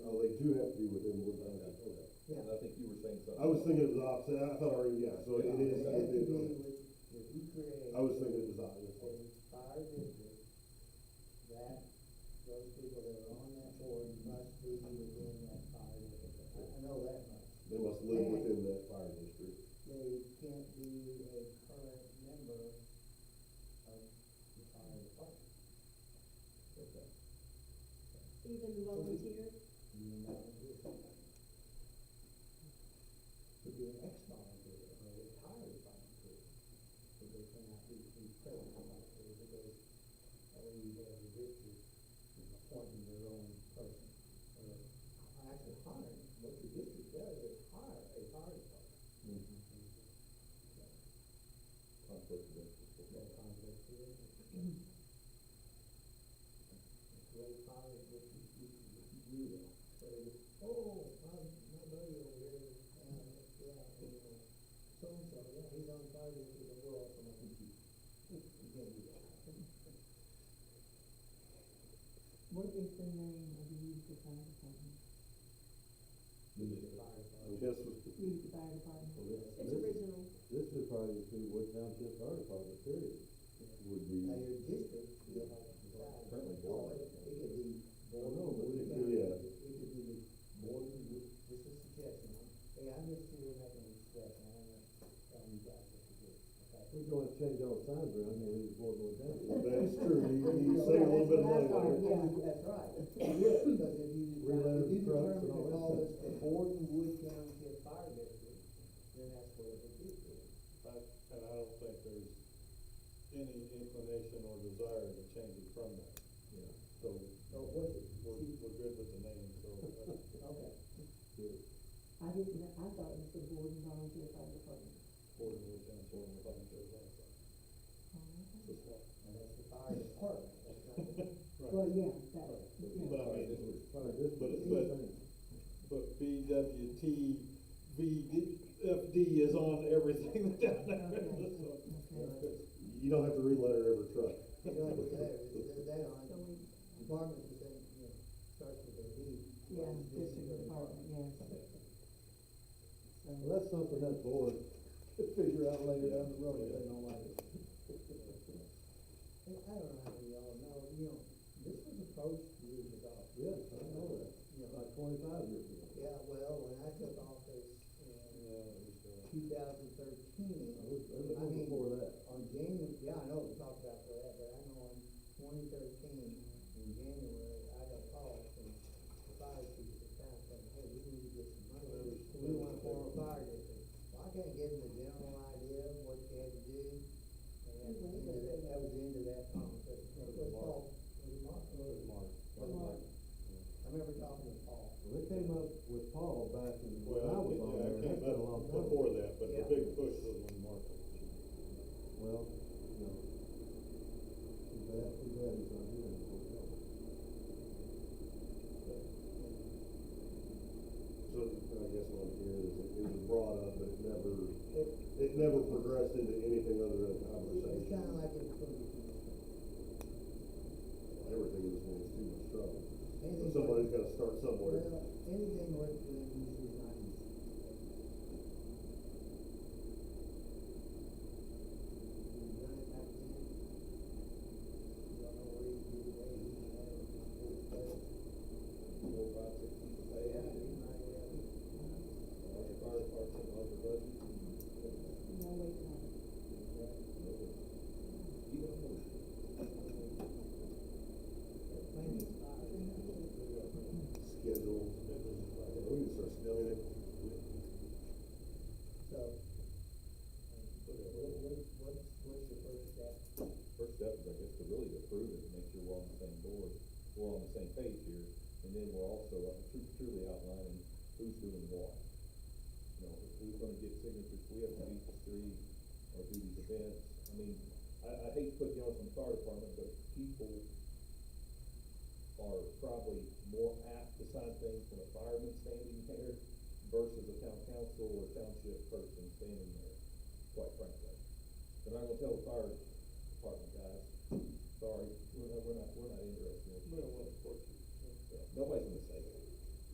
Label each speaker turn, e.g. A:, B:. A: Well, they do have to be within one thousand. okay.
B: Yeah.
C: And I think you were saying something.
A: I was thinking it was opposite, I thought already, yeah, so it
C: Yeah,
A: is.
B: It has to
A: it
B: be
A: is.
B: with, if you create.
A: I was thinking it was obvious.
B: a fire district, that, those people that are on that board must be within that fire district. I, I know that much.
A: They must live within that fire district.
B: They can't be a current member of the fire department.
C: Okay.
D: Even the volunteer,
B: You know, it's- Could be an ex-volunteer or a retired volunteer, but they cannot be a present volunteer because every, every district is appointing their own person. Or actually hiring, what the district does is hire a fire department. So,
C: Conflict of interest.
B: it's no conflict to it. Great fire district, you can do that. So, oh, my, my buddy over here, uh, yeah, you know, so-and-so, yeah, he's on fire district, but we're also on duty. You can't do that.
E: What is the name of the youth fire department?
B: He's a fire
A: I
B: department.
A: guess with.
E: Youth fire department.
D: Mm-hmm. it's original.
A: This would probably just be Wood Township Fire Department, period, would be.
B: Now, your district, you have to decide,
C: Apparently,
B: oh, it, it could be.
A: Well, no, but
B: Board
A: it could, yeah.
B: of County, It could be the board, of Ju- just a suggestion, hey, I'm just here making a suggestion, I'm not telling you guys what to do, okay?
F: We're going to change all the signs around here, leave the board going down.
A: That's true, you, you save a little bit of money there.
E: Yeah.
B: That's right, because if you,
F: We're
B: decide-
F: letting
B: if you
F: trucks
B: determine
F: and
B: to
F: all that
B: call
F: stuff.
B: this the Borden Wood Township Fire District, then that's what it would be.
G: But, and I don't think there's any inclination or desire to change it from that.
F: Yeah.
G: So
B: So
E: Oh,
B: what's it,
G: we're, we're good with the name, so uh,
B: okay,
E: I didn't, know- I thought it was the Gordon Volunteer Fire Department.
G: Board of Wood Township and Volunteer Fire. Oh,
B: and that's the fire department, that's not the.
E: Well, yeah, that,
G: But
E: yeah.
G: I mean,
F: Fire district.
G: But it-
F: same thing.
G: but- but BWT, VFD is on everything down there.
E: Okay.
G: So,
E: Okay.
A: You don't have to re-letter every truck.
B: You know, it's there, it's there on
D: So we,
B: department, but then, you know, starts with a D.
E: Yeah,
B: This is
E: district
B: the
E: department, yes.
F: Well,
E: So,
F: that's something that board could figure out later down the road if they don't like it.
B: Hey, I don't know how we all know, you know, this was approached years ago.
F: Yes, I know that,
B: You know,
F: like twenty-five years ago.
B: yeah, well, when I took office in
G: yeah, we still-
B: two thousand thirteen,
F: I was, I
B: I
F: was
B: mean-
F: before that.
B: on January, yeah, I know we talked about that, but I know in twenty thirteen, in January, I got called from the fire chief at the time saying, hey, we need to get some money, we want to form a fire district. Well, I kinda gave them a general idea of what you had to do, and that was the end of that, that was the end of that conversation. It was Paul, it was Mark, it was Mark. I remember talking to Paul.
F: Well, they came up with Paul back in, when I
G: Well,
F: was on there,
G: yeah, I
F: and
G: came
F: that's been a
G: up
F: long time.
G: before that, but the
B: Yeah.
G: big push was when Mark was chief.
F: Well, you know, too bad, too bad he's not here anymore.
A: So, I guess what I'm hearing is it it was brought up, but it never,
B: It,
A: it never progressed into anything other than a
B: it's
A: conversation.
B: kinda like it was going to be.
A: Everything is going to too much trouble. So Somebody's gotta start somewhere.
B: Well, anything worth doing is not easy. We've done it back then. Don't know where he's been waiting, you know, it's better.
C: Four, five, six feet away,
B: Yeah,
C: and
B: he might, yeah.
C: larger fire department, larger budget.
E: no wait time.
C: You don't know.
B: Maybe it's
A: Schedule. uh, We need to start scheduling
B: not.
A: it.
B: So, um, what, what, what's, what's your first step?
C: First step is, I guess, to really approve it, make sure we're on the same board, we're on the same page here, and then we're also uh, tru- truly outlining who's doing what. You know, who's gonna get signatures, we have to meet the three, or do these events, I mean, I, I hate putting you on some fire department, but people are probably more apt to sign things when a fireman standing there versus a town council or township person standing there, quite frankly. They're not gonna tell the fire department guys, sorry, we're not, we're not, we're not interested in it.
G: Well, of course,
C: So, Nobody's gonna say